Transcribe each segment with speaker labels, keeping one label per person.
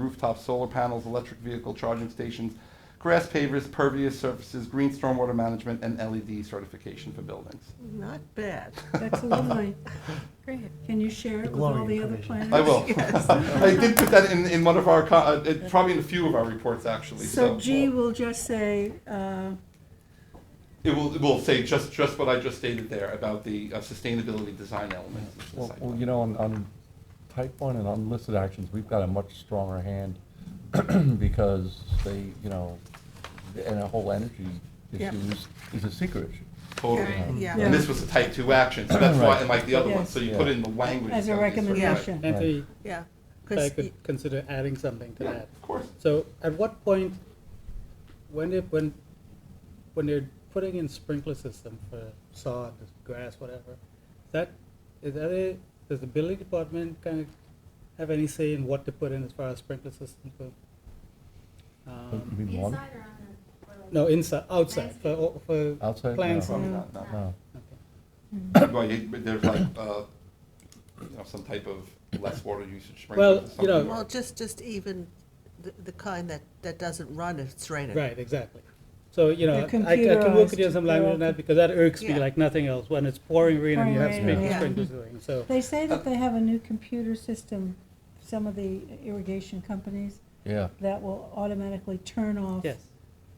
Speaker 1: rooftop solar panels, electric vehicle charging stations, grass pavers, pervious surfaces, green stormwater management, and LED certification for buildings.
Speaker 2: Mm.
Speaker 3: Not bad.
Speaker 2: That's lovely.
Speaker 4: Great.
Speaker 2: Can you share it with
Speaker 5: Glowing
Speaker 2: all the other
Speaker 5: information.
Speaker 2: planners?
Speaker 1: I will.
Speaker 3: Yes.
Speaker 1: I did put that in, in one of our, co- uh, it- probably in a few of our reports, actually, so.
Speaker 2: So G will just say, uh,
Speaker 1: It will, it will say just, just what I just stated there about the uh, sustainability design elements. of the
Speaker 5: Well,
Speaker 1: site
Speaker 5: well,
Speaker 1: plan.
Speaker 5: you know, on, on type one and unlisted actions, we've got a much stronger hand because they, you know, and the whole energy
Speaker 2: Yeah.
Speaker 5: issue is, is a secret issue.
Speaker 1: Totally.
Speaker 4: Right.
Speaker 3: Yeah.
Speaker 1: And this was a type two action, so that's why,
Speaker 5: Right.
Speaker 1: and like the other one,
Speaker 2: Yes.
Speaker 1: so you put it in the language.
Speaker 2: as a
Speaker 1: that is-
Speaker 2: recommendation.
Speaker 6: And they,
Speaker 3: Yeah.
Speaker 6: I
Speaker 3: 'cause
Speaker 6: could consider adding something to
Speaker 1: Yeah,
Speaker 6: that.
Speaker 1: of course.
Speaker 6: So at what point, when they, when, when they're putting in sprinkler system for sod, grass, whatever, is that, is that a, does the building department kind of have any say in what to put in as far as sprinkler systems go?
Speaker 5: You
Speaker 6: Um,
Speaker 5: mean one?
Speaker 4: Inside or on the? or
Speaker 6: No,
Speaker 4: like-
Speaker 6: inside, outside, for, for
Speaker 5: Outside,
Speaker 6: plants.
Speaker 5: no.
Speaker 1: Probably
Speaker 6: and-
Speaker 1: not, no.
Speaker 5: No.
Speaker 6: okay.
Speaker 1: Well, you- but there's like, uh, you know, some type of less water usage
Speaker 6: Well,
Speaker 1: sprinklers or
Speaker 6: you know-
Speaker 1: something.
Speaker 3: Well, just, just even the, the kind that, that doesn't run if it's raining.
Speaker 6: Right, exactly. So, you know,
Speaker 2: They're
Speaker 6: I I can work
Speaker 2: computerized,
Speaker 6: with you on some
Speaker 2: they're
Speaker 6: language
Speaker 2: all
Speaker 6: on that, because that irks me
Speaker 3: Yeah.
Speaker 6: like nothing else, when it's pouring rain and you have
Speaker 2: Pouring
Speaker 5: rain,
Speaker 6: spring-
Speaker 3: yeah.
Speaker 6: sprinklers going, so.
Speaker 2: They say that they have a new computer system, some of the irrigation companies,
Speaker 5: Yeah.
Speaker 2: that will automatically turn off.
Speaker 6: Yes.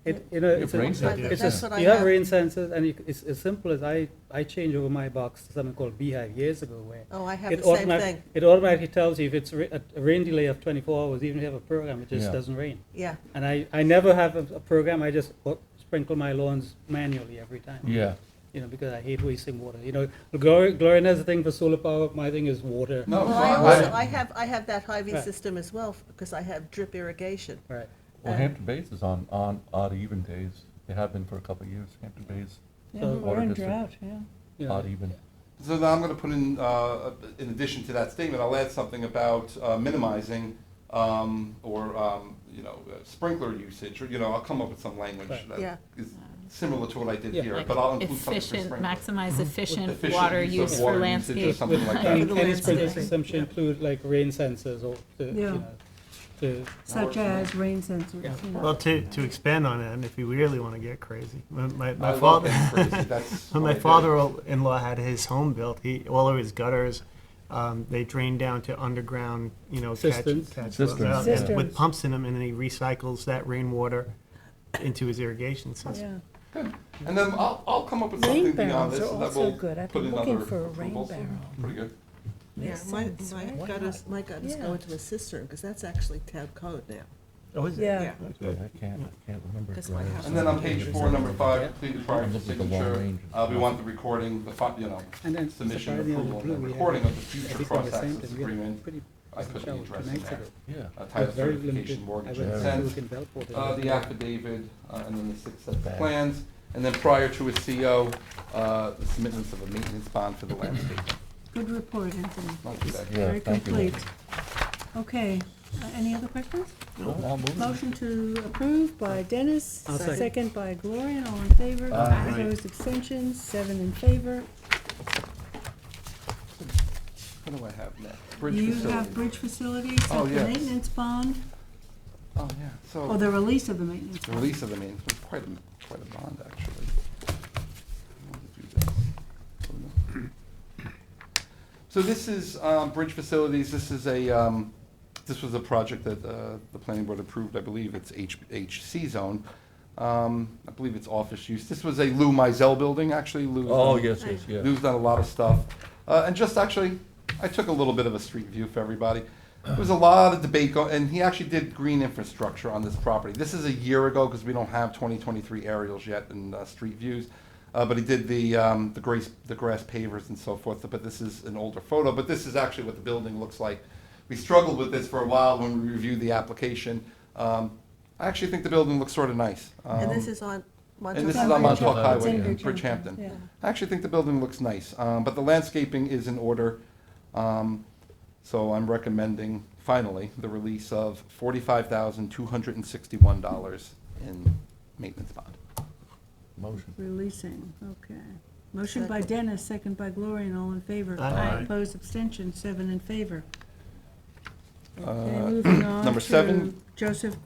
Speaker 6: It, you know, it's,
Speaker 5: If rain
Speaker 6: a-
Speaker 5: sensors.
Speaker 6: it's,
Speaker 3: That's
Speaker 6: a-
Speaker 3: what I
Speaker 6: you have
Speaker 3: have.
Speaker 6: rain sensors, and you c- it's as simple as I, I changed over my box to something called Beehive years ago, where
Speaker 3: Oh, I have
Speaker 6: it
Speaker 3: the same
Speaker 6: automatic-
Speaker 3: thing.
Speaker 6: It automatically tells you if it's ra- a rain delay of twenty-four hours, even if you have a program, it just
Speaker 5: Yeah.
Speaker 6: doesn't rain.
Speaker 3: Yeah.
Speaker 6: And I, I never have a, a program, I just o- sprinkle my lawns manually every time.
Speaker 5: Yeah.
Speaker 6: You know, because I hate wasting water, you know, Gloria, Gloria has a thing for solar power, my thing is water.
Speaker 1: No,
Speaker 3: Well, I
Speaker 1: I-
Speaker 3: also, I have, I have that Hy-Vee
Speaker 6: Right.
Speaker 3: system as well, because I have drip irrigation.
Speaker 6: Right,
Speaker 2: Um,
Speaker 5: Well,
Speaker 3: Uh,
Speaker 5: Hampton Bays is on, on odd even days. They have been for a couple of years, Hampton Bays,
Speaker 2: Yeah,
Speaker 6: So-
Speaker 2: We're in
Speaker 5: Water
Speaker 2: drought,
Speaker 5: district.
Speaker 2: yeah.
Speaker 6: you know.
Speaker 5: odd even.
Speaker 1: So now I'm going to put in, uh, in addition to that statement, I'll add something about uh, minimizing um, or, um, you know, uh, sprinkler usage, or, you know, I'll come up with some language
Speaker 6: Right.
Speaker 1: that
Speaker 3: Yeah.
Speaker 1: is similar to what I did
Speaker 6: Yeah.
Speaker 1: here,
Speaker 4: like
Speaker 1: but I'll include something for
Speaker 4: Efficient,
Speaker 1: sprinkler.
Speaker 4: maximize efficient
Speaker 1: Efficient
Speaker 4: water
Speaker 1: use of
Speaker 4: use
Speaker 1: water
Speaker 4: for
Speaker 1: usage or
Speaker 4: landscape.
Speaker 1: something like that.
Speaker 6: And
Speaker 3: the
Speaker 6: any
Speaker 3: landscape.
Speaker 6: sprinkler system should include like rain sensors or, to, you
Speaker 2: Yeah.
Speaker 6: know, to,
Speaker 2: Such as rain sensors.
Speaker 6: Yeah.
Speaker 2: you know.
Speaker 7: Well, to, to expand on it, and if you really want to get crazy, my, my,
Speaker 1: I
Speaker 7: my
Speaker 1: love
Speaker 7: father,
Speaker 1: getting crazy. That's
Speaker 7: when
Speaker 1: what I
Speaker 7: my
Speaker 1: do.
Speaker 7: father-in-law had his home built, he all of his gutters, um, they drained down to underground, you know, catch,
Speaker 6: Cisterns.
Speaker 7: catch
Speaker 5: Cisterns,
Speaker 7: uh,
Speaker 2: yeah.
Speaker 7: with pumps in them, and then he recycles that rainwater into his irrigation system.
Speaker 2: Yeah.
Speaker 1: And then I'll, I'll come up with
Speaker 8: Rain
Speaker 1: something beyond
Speaker 8: barrels
Speaker 1: this
Speaker 8: are
Speaker 1: and that
Speaker 8: also
Speaker 1: will
Speaker 8: good. I've
Speaker 1: put
Speaker 8: been
Speaker 1: in
Speaker 8: looking
Speaker 1: other
Speaker 8: for a rain
Speaker 1: approvals.
Speaker 8: barrel.
Speaker 1: Pretty good.
Speaker 3: Yeah,
Speaker 8: Makes
Speaker 3: my,
Speaker 8: sense,
Speaker 3: my
Speaker 8: right? Why
Speaker 3: gutters, my gutters go
Speaker 8: Yeah.
Speaker 3: into a cistern, because that's actually town code now.
Speaker 7: Oh, is it?
Speaker 2: Yeah.
Speaker 3: Yeah.
Speaker 5: I can't, I can't remember.
Speaker 3: That's
Speaker 5: if
Speaker 3: my
Speaker 5: there
Speaker 3: house.
Speaker 5: is
Speaker 1: And then on page four, number five,
Speaker 6: Yeah.
Speaker 1: completed prior to
Speaker 5: Looks like a long
Speaker 1: signature,
Speaker 5: range.
Speaker 1: uh, we want the recording, the, fi- you know,
Speaker 6: And then
Speaker 1: submission,
Speaker 6: surprisingly, on the
Speaker 1: approval, and the
Speaker 6: blue, we
Speaker 1: recording
Speaker 6: have
Speaker 1: of the
Speaker 6: I
Speaker 1: future
Speaker 6: think on the same
Speaker 1: cross-access
Speaker 6: thing, we had
Speaker 1: agreement,
Speaker 6: pretty
Speaker 1: I put the
Speaker 6: shower two
Speaker 1: address in
Speaker 6: nights
Speaker 1: there.
Speaker 6: ago.
Speaker 5: Yeah.
Speaker 1: Uh,
Speaker 6: It was
Speaker 1: title
Speaker 6: very
Speaker 1: certification,
Speaker 6: limited.
Speaker 1: mortgage
Speaker 6: I went to
Speaker 1: consent,
Speaker 6: Duke and Belport.
Speaker 1: uh, the affidavit, uh, and then the six sets of
Speaker 5: Bad.
Speaker 1: plans, and then prior to a CO, uh, the submittance of a maintenance bond for the landscape.
Speaker 2: Good report, Anthony.
Speaker 1: Not too bad.
Speaker 5: Yeah,
Speaker 2: Very
Speaker 5: thank you.
Speaker 2: complete. Okay, Uh, any other questions?
Speaker 5: Well, I'll move.
Speaker 2: Motion to approve by Dennis,
Speaker 6: I'll second.
Speaker 2: second by Gloria, all in favor.
Speaker 5: Aye.
Speaker 2: Opposed, abstentions, seven in favor.
Speaker 1: What do I have next? Bridge
Speaker 2: You have
Speaker 1: facility.
Speaker 2: bridge facilities,
Speaker 1: Oh,
Speaker 2: the
Speaker 1: yes.
Speaker 2: maintenance bond,
Speaker 1: Oh, yeah,
Speaker 2: or
Speaker 1: so,
Speaker 2: the release of the maintenance.
Speaker 1: the release of the maintenance, was quite a, quite a bond, actually. I wanted to do this. Oh, no. So this is um, Bridge Facilities, this is a, um, this was a project that uh, the planning board approved, I believe it's H- HC zone. Um, I believe it's office use. This was a Lou Mizell building, actually. Lou's
Speaker 5: Oh,
Speaker 1: done-
Speaker 5: yes, yes, yeah.
Speaker 1: Lou's done a lot of stuff. Uh, And just actually, I took a little bit of a street view for everybody. There was a lot of debate, go- and he actually did green infrastructure on this property. This is a year ago, because we don't have 2023 aerials yet and uh, street views. Uh, but he did the, um, the grace, the grass pavers and so forth, but this is an older photo, but this is actually what the building looks like. We struggled with this for a while when we reviewed the application. Um, I actually think the building looks sort of nice.
Speaker 3: And this
Speaker 1: Um,
Speaker 3: is on
Speaker 1: and this
Speaker 3: Montauk
Speaker 1: is on
Speaker 3: Highway.
Speaker 1: Montauk Highway
Speaker 5: Bridgehampton.
Speaker 2: It's in
Speaker 1: in Bridgehampton.
Speaker 2: Yeah.
Speaker 1: I actually think the building looks nice, um, but the landscaping is in order. Um, so I'm recommending, finally, the release of forty-five thousand, two hundred and sixty-one dollars in maintenance bond.
Speaker 5: Motion.
Speaker 2: Releasing, okay. Motion by
Speaker 3: Second.
Speaker 2: Dennis, second by Gloria, and all in favor.
Speaker 7: Aye. Aye.
Speaker 2: Opposed, abstentions, seven in favor. Okay, moving on
Speaker 1: Uh, number seven.
Speaker 2: to Joseph